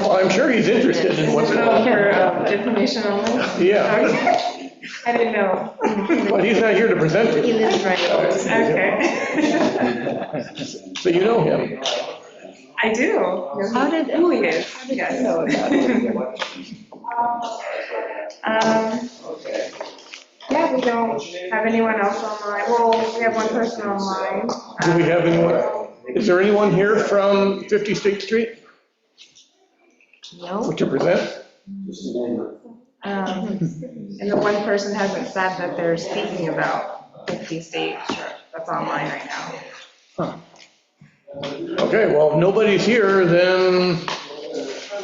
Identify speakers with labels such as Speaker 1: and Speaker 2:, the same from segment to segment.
Speaker 1: Well, I'm sure he's interested in what's
Speaker 2: Is
Speaker 1: going
Speaker 2: it
Speaker 1: on.
Speaker 2: all for um, information only?
Speaker 1: Yeah,
Speaker 2: Okay. I didn't know.
Speaker 1: but he's not here to present
Speaker 2: He
Speaker 1: it,
Speaker 2: lives right Okay.
Speaker 1: so you know him.
Speaker 2: I do.
Speaker 3: How did-
Speaker 2: Who he is,
Speaker 3: How did you
Speaker 2: yes.
Speaker 3: know that?
Speaker 2: Um, Yeah, we don't have anyone else online. Well, we have one person online.
Speaker 1: Do we have anyone, is there anyone here from 50 State Street
Speaker 2: No.
Speaker 1: to present?
Speaker 2: Um, And the one person hasn't said that they're speaking about 50 State Street. That's online right now.
Speaker 1: Okay, well, if nobody's here, then,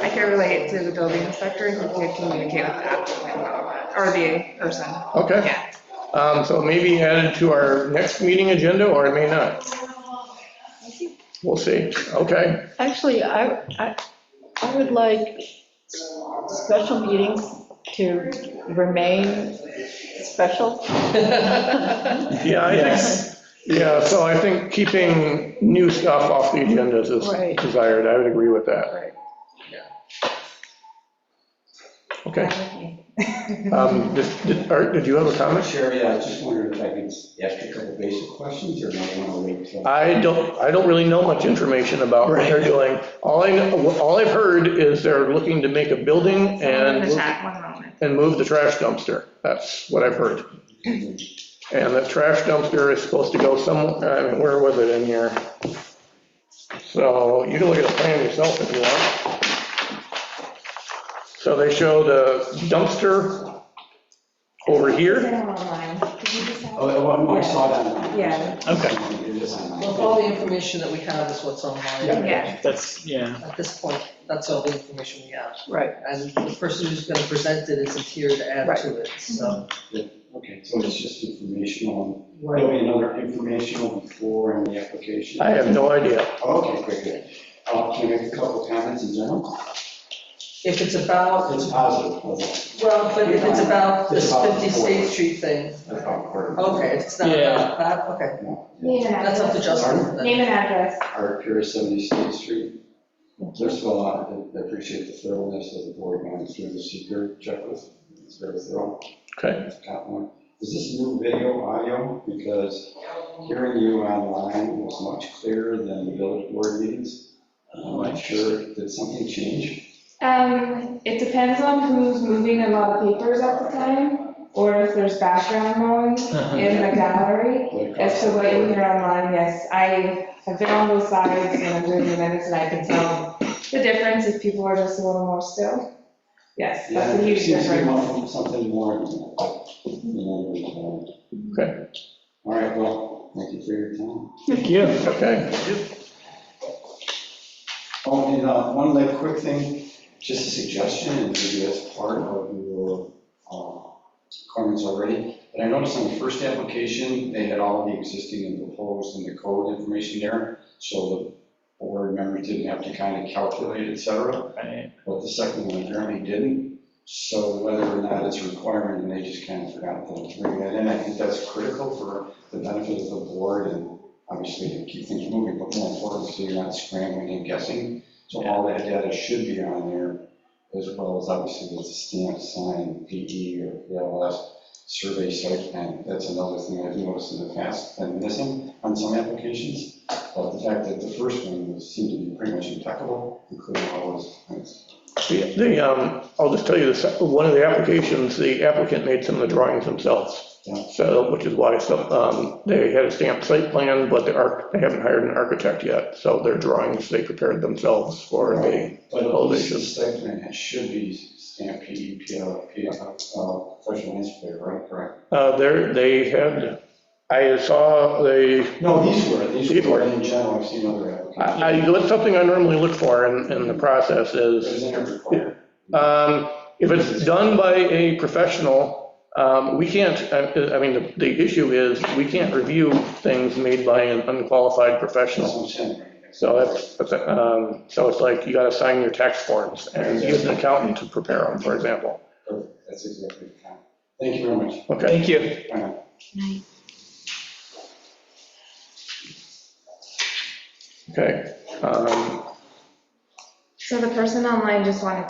Speaker 2: I can relate to the building inspector who could communicate with the applicant about that, or the person.
Speaker 1: okay.
Speaker 2: Yeah.
Speaker 1: Um, So maybe added to our next meeting agenda, or it may not. We'll see, okay.
Speaker 3: Actually, I, I, I would like special meetings to remain special.
Speaker 1: Yeah, I think, yeah, so I think keeping new stuff off the agenda is
Speaker 3: Right.
Speaker 1: desired, I would agree with that,
Speaker 3: Right.
Speaker 1: okay. Um, did- did- Art, did you have a comment?
Speaker 4: Sherry, I was just wondering if I could ask you a couple basic questions, or not want to wait
Speaker 5: Uh,
Speaker 4: till?
Speaker 1: I don't, I don't really know much information about what they're doing. All I, know- all I've heard is they're looking to make a building
Speaker 2: Someone in the
Speaker 1: and,
Speaker 2: chat, one moment.
Speaker 1: and move the trash dumpster. That's what I've heard. And the trash dumpster is supposed to go some, I mean, where was it in here? So you can look at the plan yourself if you want. So they show the dumpster over here.
Speaker 2: online. Did you just have?
Speaker 4: Oh, oh, no, I saw that. one.
Speaker 2: Yeah.
Speaker 6: Okay.
Speaker 4: It is on
Speaker 5: Well,
Speaker 4: my-
Speaker 5: all the information that we have is what's online.
Speaker 2: Yeah.
Speaker 6: That's, yeah.
Speaker 5: At this point, that's all the information we have.
Speaker 3: Right.
Speaker 5: And the person who's going to present it isn't here to add to it, so.
Speaker 4: Okay, so it's just informational, there'll be another informational before in the application? Oh,
Speaker 1: I have no idea.
Speaker 4: Okay, very good. Uh, Can I make a couple comments in general?
Speaker 5: If it's about,
Speaker 4: It's positive, wasn't
Speaker 5: well, but if it's about this
Speaker 4: It's about
Speaker 5: 50 State
Speaker 4: four.
Speaker 5: Street thing,
Speaker 4: it? That's about quarter.
Speaker 5: okay, it's not
Speaker 6: Yeah.
Speaker 5: about that, okay.
Speaker 2: Name and
Speaker 5: That's up to
Speaker 2: address.
Speaker 5: Justin then.
Speaker 2: Name and address.
Speaker 4: Art Pier, 70 State Street. First of all, I I appreciate the thoroughness of the board going through the secret checklist, it's very thorough.
Speaker 1: Okay.
Speaker 4: That's a compliment. Is this new video audio? Because hearing you online was much clearer than the village board meetings. Um, I'm not sure, did something change?
Speaker 2: Um, it depends on who's moving a lot of papers at the time, or if there's background noise in the gallery. As to what you hear online, yes, I have been on both sides and I'm doing the minutes and I can tell the difference if people are just a little more still. Yes,
Speaker 4: Yeah,
Speaker 2: that's a
Speaker 4: it
Speaker 2: huge
Speaker 4: seems to be
Speaker 2: difference.
Speaker 4: wanting something more. than that. Yeah,
Speaker 1: Okay.
Speaker 4: All right, well, thank you for your time.
Speaker 1: Thank you. Okay.
Speaker 4: Oh, and uh, one like quick thing, just a suggestion, and maybe that's part of your uh, comments already. But I noticed on the first application, they had all the existing and proposed and the code information there, so the board members didn't have to kind of calculate, et cetera.
Speaker 6: Right.
Speaker 4: But the second one apparently didn't, so whether or not it's a requirement, and they just kind of forgot to bring that in. I think that's critical for the benefit of the board and obviously to keep things moving, but more importantly, so you're not scrambling and guessing. So all that data should be on there, as well as obviously with the stamp sign, PE or PLS, survey site plan. That's another thing I've noticed in the past, been missing on some applications. But the fact that the first one was- seemed to be pretty much impeccable, including all those points.
Speaker 1: The- The, um, I'll just tell you this, one of the applications, the applicant made some of the drawings themselves.
Speaker 4: Yeah.
Speaker 1: So, which is why some, um, they had a stamped site plan, but they are, they haven't hired an architect yet. So their drawings, they prepared themselves for the,
Speaker 4: But at
Speaker 1: Oh, they
Speaker 4: least the
Speaker 1: should.
Speaker 4: site plan, it should be E stamp PE, PL, uh, professional engineer, right, correct?
Speaker 1: uh, there, they had, I saw the,
Speaker 4: No, these were, these
Speaker 1: These
Speaker 4: were Uh,
Speaker 1: were.
Speaker 4: in general, I've seen other applications.
Speaker 1: I, I- that's something I normally look for in, in the process
Speaker 4: It
Speaker 1: is
Speaker 4: was in every corner.
Speaker 1: Um, If it's done by a professional, um, we can't, I I mean, the- the issue is, we can't review things made by an unqualified
Speaker 4: That's
Speaker 1: professional.
Speaker 4: what I'm saying.
Speaker 1: So that's, that's, um, so it's like, you gotta sign your tax forms and use an accountant to prepare them, for example.
Speaker 4: Perfect. That's exactly the time. Thank you very much.
Speaker 1: Okay,
Speaker 6: Thank you.
Speaker 4: Bye.
Speaker 1: okay. Um,
Speaker 7: So the person online just wanted